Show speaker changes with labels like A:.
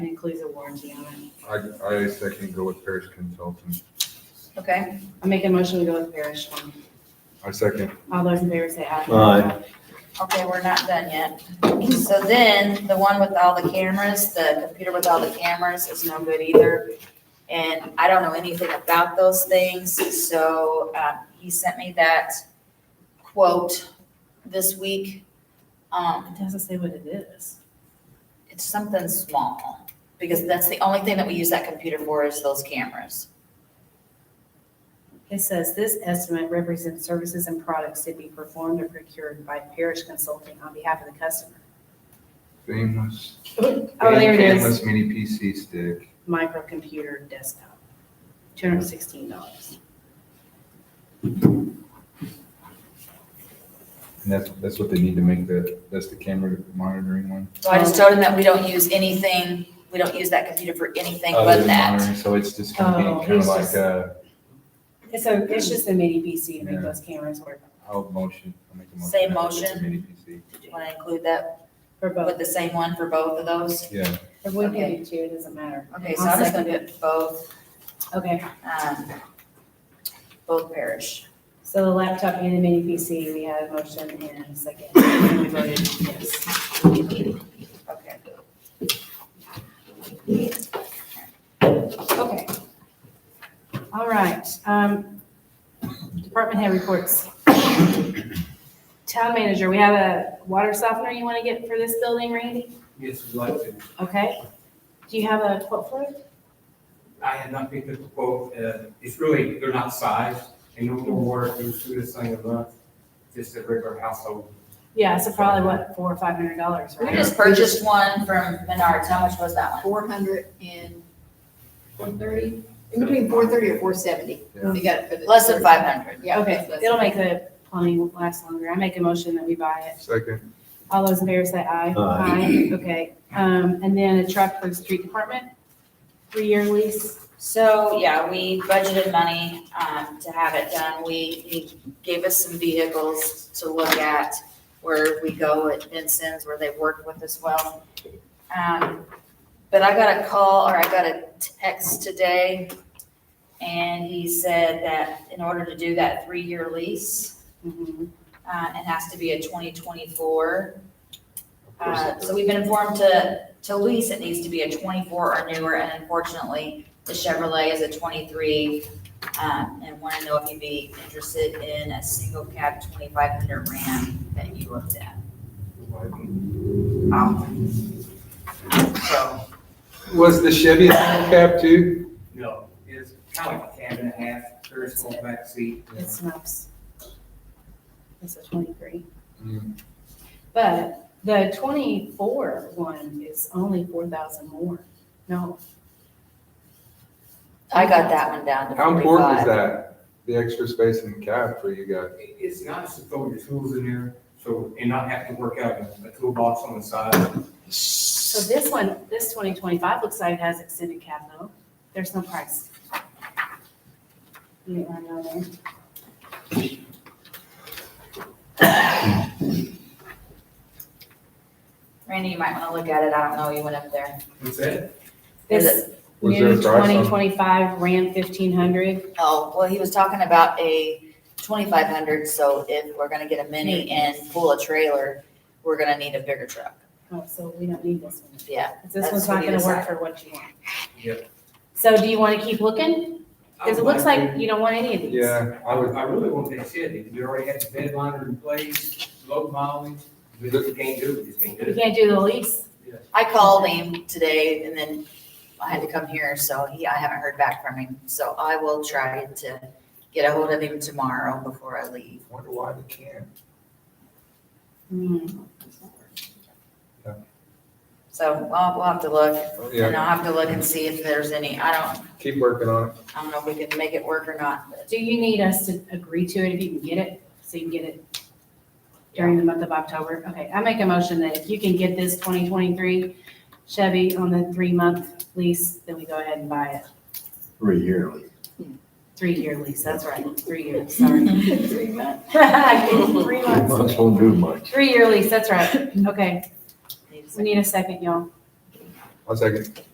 A: It includes a warranty on it.
B: I, I second go with Parish Consulting.
C: Okay,
A: I make a motion to go with Parish one.
B: I second.
A: All those in favor say aye.
D: Aye.
C: okay, we're not done yet. So then, the one with all the cameras, the computer with all the cameras is no good either. And I don't know anything about those things, so, um, he sent me that quote this week. Um,
A: It doesn't say what it is.
C: it's something small, because that's the only thing that we use that computer for is those cameras.
A: It says this estimate represents services and products to be performed or procured by Parish Consulting on behalf of the customer.
B: Famous.
A: Oh, there it is,
B: Famous mini PC stick.
A: microcomputer desktop, two hundred and sixteen dollars.
B: And that's, that's what they need to make the, that's the camera monitoring one.
C: So I just told him that we don't use anything, we don't use that computer for anything
B: Other
C: but
B: than
C: that.
B: monitoring, So it's just gonna
A: Oh,
B: be kind of
A: it's
B: like uh,
A: just-
B: a,
A: It's a, it's just a mini PC to make
B: Yeah.
A: those cameras work
B: I'll motion. I'll make a motion.
C: Same
B: that it's a
C: motion?
B: Mini PC.
C: Do you want to include that
A: for both.
C: with the same one for both of those?
B: Yeah,
A: If we can
C: Okay.
A: do two, it doesn't matter.
C: Okay, so
A: I'll
C: I'm just gonna
A: second
C: put both,
A: Okay,
C: um, both parish.
A: so the laptop and the mini PC, we had a motion and a second, and we voted yes.
C: Okay,
A: Okay. All right, um, department head reports. Town manager, we have a water softener you want to get for this building, Randy?
E: Yes, we'd like to.
A: Okay. Do you have a quote for it?
E: I had not picked up the quote, uh, it's really, they're not sized, and no more, it was through this thing a month, just a regular household.
A: Yeah, so probably what, four or five hundred dollars,
C: we
A: right?
C: just purchased one from Menards, how much was that one?
F: four hundred and four thirty, in between four thirty or four seventy.
A: Oh.
B: Yeah.
F: They got it for the.
C: Less than five hundred.
F: Yeah.
A: Okay,
F: less-
A: it'll make the plumbing last longer. I make a motion that we buy it.
B: second.
A: All those in favor say aye.
D: Aye.
A: Okay, um, and then a truck for the street department, three-year lease.
C: So, yeah, we budgeted money, um, to have it done. We, he gave us some vehicles to look at where we go at Vinson's, where they've worked with us well. Um, but I got a call or I got a text today and he said that in order to do that three-year lease,
A: Mhm.
C: uh, it has to be a twenty twenty-four. Uh, so we've been informed to, to lease, it needs to be a twenty-four or newer, and unfortunately, the Chevrolet is a twenty-three. Um, and want to know if you'd be interested in a single cab twenty-five hundred Ram that you looked at. Um, So,
B: Was the Chevy cab too?
E: No, it's kind of like a cab and a half, there's a small back seat.
A: It snaps. It's a twenty-three.
B: Mm.
A: But the twenty-four one is only four thousand more. No,
C: I got that one down to
B: How important is
C: forty-five.
B: that? The extra space in the cab for you guys?
E: It- It's nice to throw your tools in there, so, and not have to work out a- a toolbox on the side.
A: so this one, this twenty twenty-five looks like it has extended cab though. There's no price. You want to know there?
C: Randy, you might want to look at it, I don't know, you went up there.
E: What's that?
C: Is
A: This
B: Was there a
A: new
B: price on-
A: twenty twenty-five Ram fifteen hundred,
C: Oh, well, he was talking about a twenty-five hundred, so if we're gonna get a mini and pull a trailer, we're gonna need a bigger truck.
A: oh, so we don't need this one.
C: Yeah,
A: This one's
C: That's what
A: not
C: he
A: gonna work
C: decided.
A: for what you want.
E: Yep.
A: So do you wanna keep looking? Cause it looks like you don't want any of these.
B: Yeah,
E: I would, I really want that Chevy, we already had the bed liner in place, low mileage, but if you can't do it, you just can't do
A: You
E: it.
A: can't do the lease.
C: I called him today and then I had to come here, so he, I haven't heard back from him. So I will try to get a hold of him tomorrow before I leave.
B: Wonder why they can't.
A: Hmm.
C: So we'll, we'll have to look, and
B: Yeah,
C: I'll have to look and see if there's any, I don't,
B: keep working on it.
C: I don't know if we can make it work or not, but
A: Do you need us to agree to it if you can get it, so you can get it during the month of October? Okay, I make a motion that if you can get this twenty twenty-three Chevy on the three-month lease, then we go ahead and buy it.
D: Three yearly.
A: Three-year lease, that's right, three years, sorry.
F: Three months.
A: Three months.
D: Months won't do much.
A: Three-year lease, that's right. Okay,
C: I need to-
A: we need a second, y'all.
B: I'll second.